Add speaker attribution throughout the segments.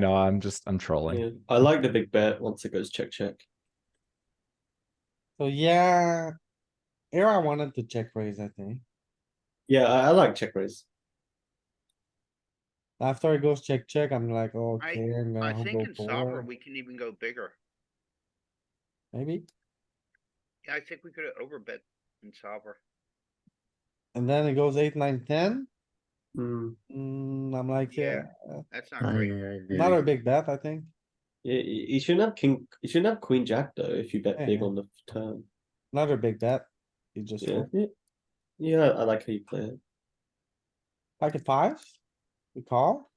Speaker 1: No, I'm just, I'm trolling.
Speaker 2: Yeah, I like the big bet once it goes check, check.
Speaker 3: So yeah. Here I wanted to check raise, I think.
Speaker 2: Yeah, I, I like check raise.
Speaker 3: After it goes check, check, I'm like, okay, I'm
Speaker 4: I
Speaker 3: gonna
Speaker 4: think
Speaker 3: go
Speaker 4: in solver,
Speaker 3: forward,
Speaker 4: we can even go bigger.
Speaker 3: maybe.
Speaker 4: Yeah, I think we could have overbet in solver.
Speaker 3: And then it goes eight, nine, ten.
Speaker 2: Mm,
Speaker 3: Mm, I'm like, yeah,
Speaker 4: That's not great.
Speaker 3: not a big bet, I think.
Speaker 2: you, you you shouldn't have king, you shouldn't have queen jack though, if you bet big
Speaker 3: Yeah.
Speaker 2: on the turn.
Speaker 3: Not a big bet. You just,
Speaker 2: Yeah,
Speaker 3: fold.
Speaker 2: yeah. Yeah, I like how you play it.
Speaker 3: pocket five? We call?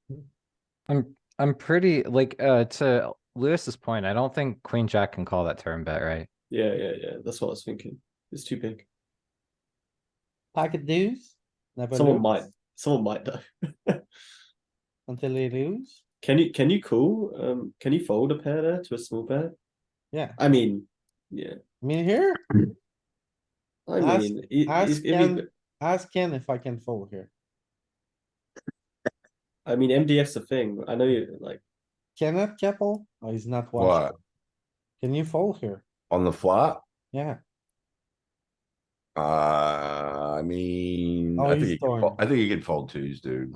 Speaker 1: I'm, I'm pretty, like, uh, to Lewis's point, I don't think queen jack can call that turn bet, right?
Speaker 2: Yeah, yeah, yeah, that's what I was thinking. It's too big.
Speaker 3: Pocket deuce? Never
Speaker 2: Someone
Speaker 3: lose
Speaker 2: might, someone might though.
Speaker 3: Until they lose?
Speaker 2: Can you, can you call, um, can you fold a pair there to a small pair?
Speaker 3: Yeah,
Speaker 2: I mean, yeah,
Speaker 3: I mean here,
Speaker 2: I
Speaker 3: Ask-
Speaker 2: mean, it, it's,
Speaker 3: ask
Speaker 2: it'd be-
Speaker 3: Ken, ask Ken if I can fold here.
Speaker 2: I mean, MDF's a thing. I know you, like,
Speaker 3: Kenneth Keppel? Oh, he's not watching.
Speaker 5: What,
Speaker 3: Can you fold here?
Speaker 5: on the flop?
Speaker 3: Yeah,
Speaker 5: Uh, I mean,
Speaker 3: Oh,
Speaker 5: I
Speaker 3: he's
Speaker 5: think, you can
Speaker 3: torn.
Speaker 5: fo- I think you can fold twos, dude.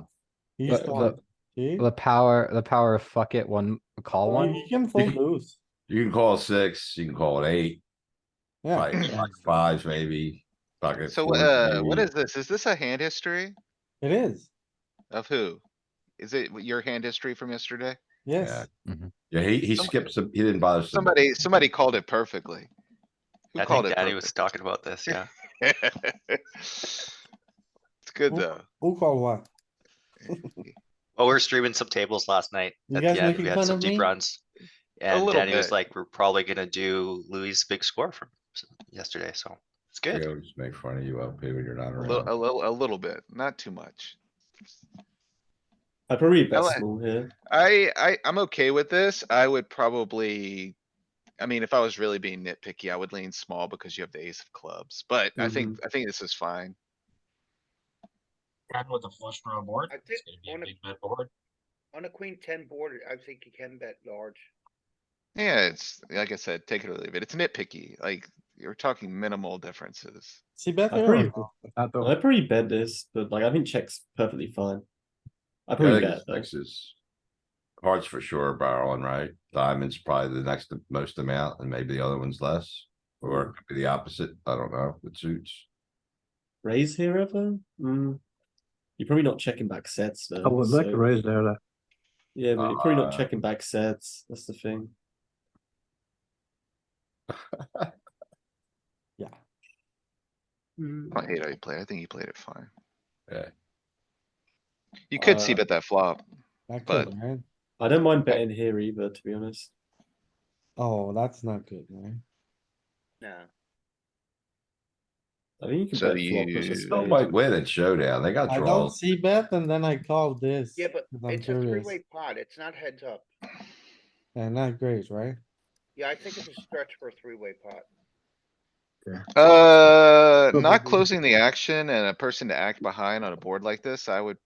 Speaker 3: he's
Speaker 1: But the-
Speaker 3: calling. See?
Speaker 1: The power, the power of fuck it, one, call
Speaker 3: Well,
Speaker 1: one.
Speaker 3: You can fold loose,
Speaker 5: You can call a six, you can call an eight,
Speaker 3: yeah.
Speaker 5: like, like fives maybe. pocket
Speaker 6: So,
Speaker 5: fours
Speaker 6: uh, what
Speaker 5: maybe.
Speaker 6: is this? Is this a hand history
Speaker 3: It is,
Speaker 6: of who? Is it your hand history from yesterday?
Speaker 3: yes.
Speaker 5: Yeah, he, he
Speaker 6: some-
Speaker 5: skipped some, he didn't bother. some-
Speaker 6: Somebody, somebody called it perfectly. Who
Speaker 7: I
Speaker 6: called
Speaker 7: think
Speaker 6: it?
Speaker 7: Danny was
Speaker 6: perfect?
Speaker 7: talking about this, yeah.
Speaker 6: It's good
Speaker 3: Who-
Speaker 6: though.
Speaker 3: Who called what?
Speaker 7: Well, Oh, we were streaming some tables last night.
Speaker 3: You
Speaker 7: At
Speaker 3: guys
Speaker 7: the end,
Speaker 3: making
Speaker 7: we
Speaker 3: fun
Speaker 7: had some
Speaker 3: of me?
Speaker 7: deep runs. And
Speaker 6: little
Speaker 7: Danny was
Speaker 6: bit.
Speaker 7: like, we're probably gonna do Louis' big score from s- yesterday, so it's
Speaker 5: They
Speaker 7: good.
Speaker 5: always make fun of you LP when you're not
Speaker 6: A little, a
Speaker 5: around.
Speaker 6: little, a little bit, not too much.
Speaker 2: I probably bet
Speaker 6: like-
Speaker 2: small here.
Speaker 6: I, I, I'm okay with this. I would probably. I mean, if I was really being nitpicky, I would lean small because you have the ace of clubs, but I think, I think this is fine.
Speaker 8: And with the flush draw board,
Speaker 4: I think
Speaker 8: it's gonna be a
Speaker 4: on a-
Speaker 8: big bet board.
Speaker 4: On a queen ten board, I think you can bet large.
Speaker 6: Yeah, it's, like I said, take it or leave it. It's nitpicky, like, you're talking minimal differences.
Speaker 3: See bet
Speaker 2: I
Speaker 3: here?
Speaker 2: pretty-
Speaker 3: or-
Speaker 2: I probably bet this, but like I think check's perfectly fine. I
Speaker 5: Yeah, I
Speaker 2: probably
Speaker 5: think
Speaker 2: bet
Speaker 5: it's
Speaker 2: though.
Speaker 5: sixes. Hearts for sure barreling, right? Diamonds probably the next most amount and maybe the other one's less. Or it could be the opposite. I don't know. It suits.
Speaker 2: Raise here ever? Mm. You're probably not checking back sets though.
Speaker 9: I
Speaker 3: Oh,
Speaker 9: would like
Speaker 2: so-
Speaker 9: to raise there, like,
Speaker 2: Yeah, but you're probably not
Speaker 5: Uh,
Speaker 2: checking back sets. That's the thing.
Speaker 3: Yeah. Mm.
Speaker 6: I don't hate how he played. I think he played it fine.
Speaker 5: Yeah.
Speaker 6: You could see
Speaker 2: Uh,
Speaker 6: bet that flop.
Speaker 3: I could,
Speaker 6: But-
Speaker 3: right?
Speaker 2: I don't mind betting here either, to be honest.
Speaker 3: Oh, that's not good, man.
Speaker 4: No.
Speaker 2: I think you can
Speaker 6: So
Speaker 2: bet flop as a
Speaker 6: you-
Speaker 5: Still
Speaker 2: spade.
Speaker 5: might win at showdown. They got
Speaker 3: I don't
Speaker 5: draws.
Speaker 3: see bet and then I call this.
Speaker 4: Yeah, but
Speaker 3: 'cause I'm
Speaker 4: it's a
Speaker 3: curious.
Speaker 4: three-way pot. It's not heads up.
Speaker 3: And not great, right?
Speaker 4: Yeah, I think it's a stretch for a three-way pot.
Speaker 6: Uh, not
Speaker 9: Probably.
Speaker 6: closing the action and a person to act behind on a board like this, I would,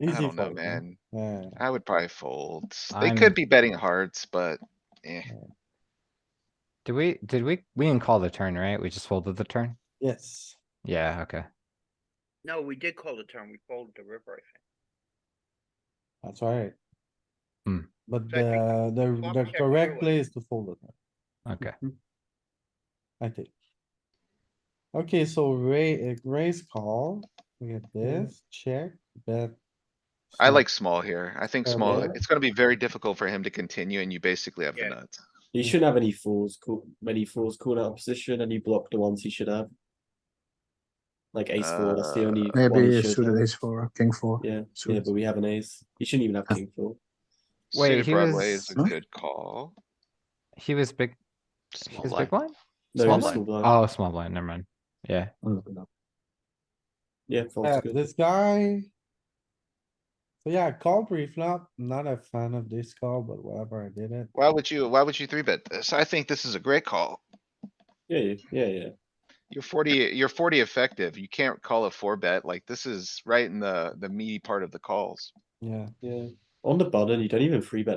Speaker 6: I
Speaker 3: Easy
Speaker 6: don't know,
Speaker 3: fold, right?
Speaker 6: man.
Speaker 3: Yeah,
Speaker 6: I would probably fold. They
Speaker 1: I'm-
Speaker 6: could be betting hearts, but eh,
Speaker 1: Did we, did we, we didn't call the turn, right? We just folded the turn?
Speaker 3: yes.
Speaker 1: Yeah, okay.
Speaker 4: No, we did call the turn. We folded the river, I think.
Speaker 3: That's right.
Speaker 1: Hmm.
Speaker 3: But
Speaker 4: So I
Speaker 3: the,
Speaker 4: think
Speaker 3: the,
Speaker 4: flop
Speaker 3: the
Speaker 4: check
Speaker 3: correct
Speaker 4: through it.
Speaker 3: play is to fold it,
Speaker 1: Okay.
Speaker 3: I think. Okay, so ra- uh, raise call, we get this, check, bet.
Speaker 6: I
Speaker 3: small.
Speaker 6: like small here. I think
Speaker 3: Fair
Speaker 6: small,
Speaker 3: bet.
Speaker 6: it's gonna be very difficult for him to continue and you basically have the
Speaker 4: Yeah.
Speaker 6: nuts.
Speaker 2: You shouldn't have any fours, call, many fours called out of position, and you block the ones you should have. Like ace four, that's the only. one
Speaker 9: Uh, maybe
Speaker 2: you
Speaker 9: it's
Speaker 2: should
Speaker 9: suited
Speaker 2: have.
Speaker 9: ace four, king four.
Speaker 2: Yeah, yeah,
Speaker 9: suited.
Speaker 2: but we have an ace. You shouldn't even have
Speaker 9: Yeah.
Speaker 2: king four.
Speaker 1: Wait,
Speaker 6: Suited
Speaker 1: he
Speaker 6: Broadway is a
Speaker 9: was-
Speaker 6: good call.
Speaker 1: He was big, he
Speaker 7: Small
Speaker 1: was
Speaker 7: blind.
Speaker 1: big blind?
Speaker 2: No,
Speaker 1: Small
Speaker 2: it's
Speaker 1: blind?
Speaker 2: small blind.
Speaker 1: Oh, small blind, never mind. Yeah.
Speaker 2: Yeah, fold's
Speaker 3: Yeah,
Speaker 2: Oh, good.
Speaker 3: this guy. So yeah, call pre-flop, not a fan of this call, but whatever, I did it.
Speaker 6: Why would you, why would you three bet this? I think this is a great call.
Speaker 2: Yeah, yeah, yeah, yeah.
Speaker 6: You're forty, you're forty effective. You can't call a four bet. Like this is right in the, the meaty part of the calls.
Speaker 3: Yeah.
Speaker 2: yeah. On the button, you don't even free bet